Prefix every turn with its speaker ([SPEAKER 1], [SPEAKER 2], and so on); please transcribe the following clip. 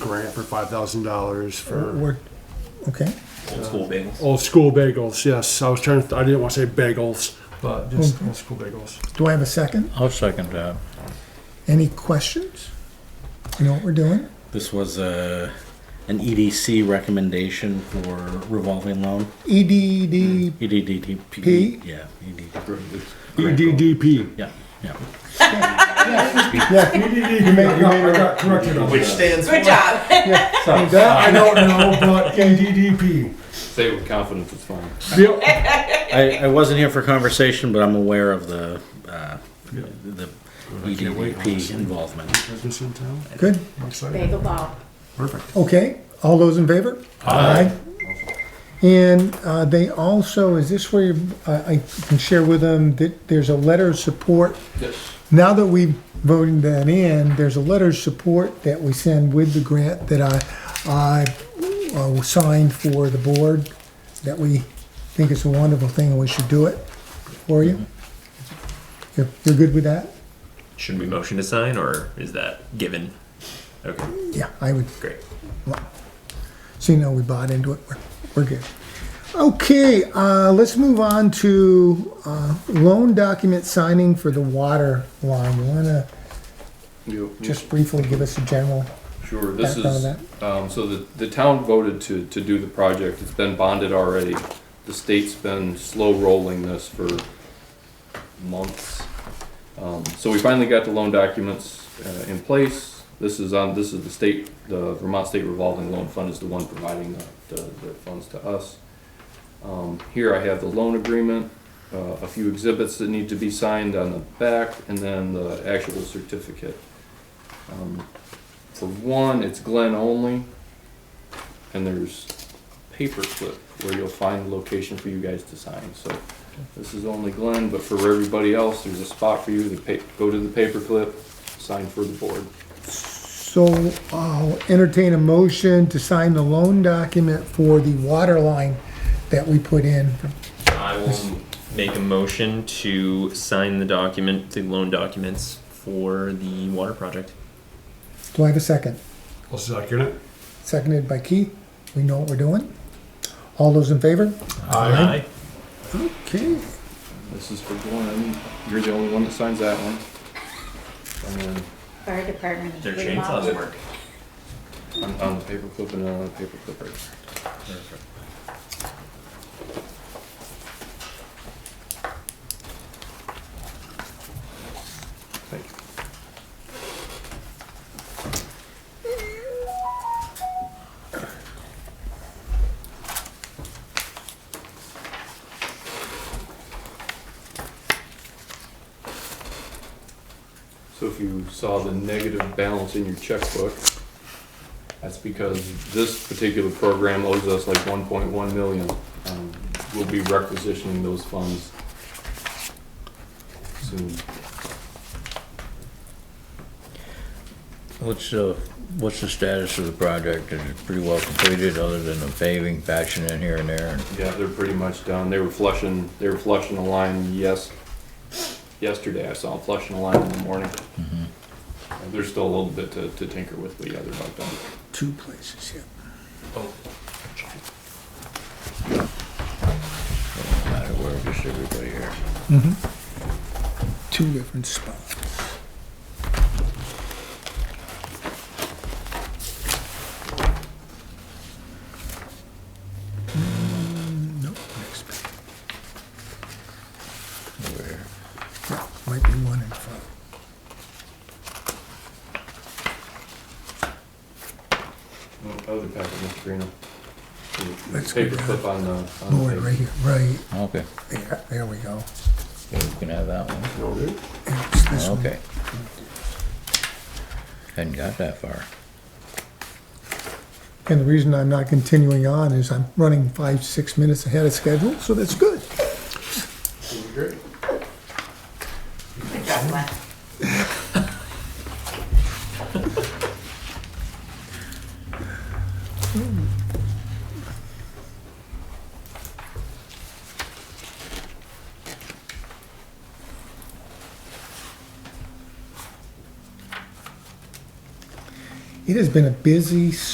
[SPEAKER 1] grant for five thousand dollars for
[SPEAKER 2] We're, okay.
[SPEAKER 3] Old school bagels.
[SPEAKER 1] old school bagels. Yes, I was trying. To, I didn't want to say bagels, but just old school bagels.
[SPEAKER 2] Do I have a second?
[SPEAKER 4] I'll second that.
[SPEAKER 2] Any questions? You know what we're doing?
[SPEAKER 4] This was a, an EDC recommendation for revolving loan.
[SPEAKER 2] E
[SPEAKER 4] E
[SPEAKER 2] EDD, P?
[SPEAKER 4] EDDP, yeah, E EDD,
[SPEAKER 1] EDDP.
[SPEAKER 4] yeah, yeah.
[SPEAKER 2] yeah, you made, you made,
[SPEAKER 1] got corrected on
[SPEAKER 3] Which stands
[SPEAKER 5] Good job.
[SPEAKER 1] that. I don't know, but EDDP.
[SPEAKER 6] Say it with confidence, it's fine.
[SPEAKER 1] Yep.
[SPEAKER 4] I, I wasn't here for conversation, but I'm aware of the, uh,
[SPEAKER 1] Yeah.
[SPEAKER 4] the E EDDP involvement.
[SPEAKER 1] Is this in town?
[SPEAKER 2] good,
[SPEAKER 1] I'm excited.
[SPEAKER 5] Bagel ball.
[SPEAKER 1] Perfect.
[SPEAKER 2] okay, all those in favor? Aye. And, uh, they also, is this where, you- I, I can share with them that there's a letter of support?
[SPEAKER 6] Yes.
[SPEAKER 2] Now that we've voted that in, there's a letter of support that we send with the grant that I, I uh, signed for the board, that we think it's a wonderful thing and we should do it for you. You're, you're good with that?
[SPEAKER 3] Should we motion to sign, or is that given? Okay,
[SPEAKER 2] Yeah, I would,
[SPEAKER 3] great.
[SPEAKER 2] so you know we bought into it, we're, we're good. Okay, uh, let's move on to, uh, loan document signing for the water line. You wanna just briefly give us a general?
[SPEAKER 6] Sure, this
[SPEAKER 2] background
[SPEAKER 6] is,
[SPEAKER 2] on
[SPEAKER 6] um, so the, the town voted to, to do the project, it's been bonded already. The state's been slow rolling this for months. Um, so we finally got the loan documents, uh, in place. This is on, this is the state, the Vermont State Revolving Loan Fund is the one providing the, the, the funds to us. Um, here I have the loan agreement, uh, a few exhibits that need to be signed on the back, and then the actual certificate. Um, for one, it's Glen only, and there's paperclip where you'll find the location for you guys to sign. So this is only Glen, but for everybody else, there's a spot for you to pa- go to the paperclip, sign for the board.
[SPEAKER 2] So I'll entertain a motion to sign the loan document for the water line that we put in.
[SPEAKER 3] I will make a motion to sign the document, the loan documents for the water project.
[SPEAKER 2] Do I have a second?
[SPEAKER 1] I'll second it.
[SPEAKER 2] Seconded by Keith. We know what we're doing. All those in favor?
[SPEAKER 1] Uh-huh.
[SPEAKER 3] Aye.
[SPEAKER 2] Okay.
[SPEAKER 6] This is for Glen, you're the only one that signs that one. And then
[SPEAKER 5] Fire department.
[SPEAKER 3] Their
[SPEAKER 5] remodel.
[SPEAKER 3] chainsaws work.
[SPEAKER 6] on, on the paperclip and on the paperclip right there. Thank you. So if you saw the negative balance in your checkbook, that's because this particular program owes us like one point one million. Um, We'll be requisitioning those funds soon.
[SPEAKER 4] What's the, what's the status of the project? Is it pretty well completed, other than the paving, patching in here and there?
[SPEAKER 6] Yeah, they're pretty much done. They were flushing, they were flushing a line, yes, yesterday I saw them flushing a line in the morning. Uh, There's still a little bit to, to tinker with, but yeah, they're about done.
[SPEAKER 2] Two places, yeah.
[SPEAKER 4] No matter where, just everybody here.
[SPEAKER 2] Two different spots. Mm, Nope, next page.
[SPEAKER 4] Over here.
[SPEAKER 2] Yeah, Might be one in front.
[SPEAKER 6] Other packet, Mr. Greeno. The- the
[SPEAKER 2] Let's go down.
[SPEAKER 6] Paperclip on the. on the
[SPEAKER 2] Board
[SPEAKER 6] paper.
[SPEAKER 2] right here, right
[SPEAKER 4] Okay,
[SPEAKER 2] there, there we go.
[SPEAKER 4] yeah, you can have that one.
[SPEAKER 2] It's this one.
[SPEAKER 4] Okay. Hadn't got that far.
[SPEAKER 2] And the reason I'm not continuing on is I'm running five, six minutes ahead of schedule, so that's good.
[SPEAKER 5] Good job, Glenn.
[SPEAKER 2] it has been a busy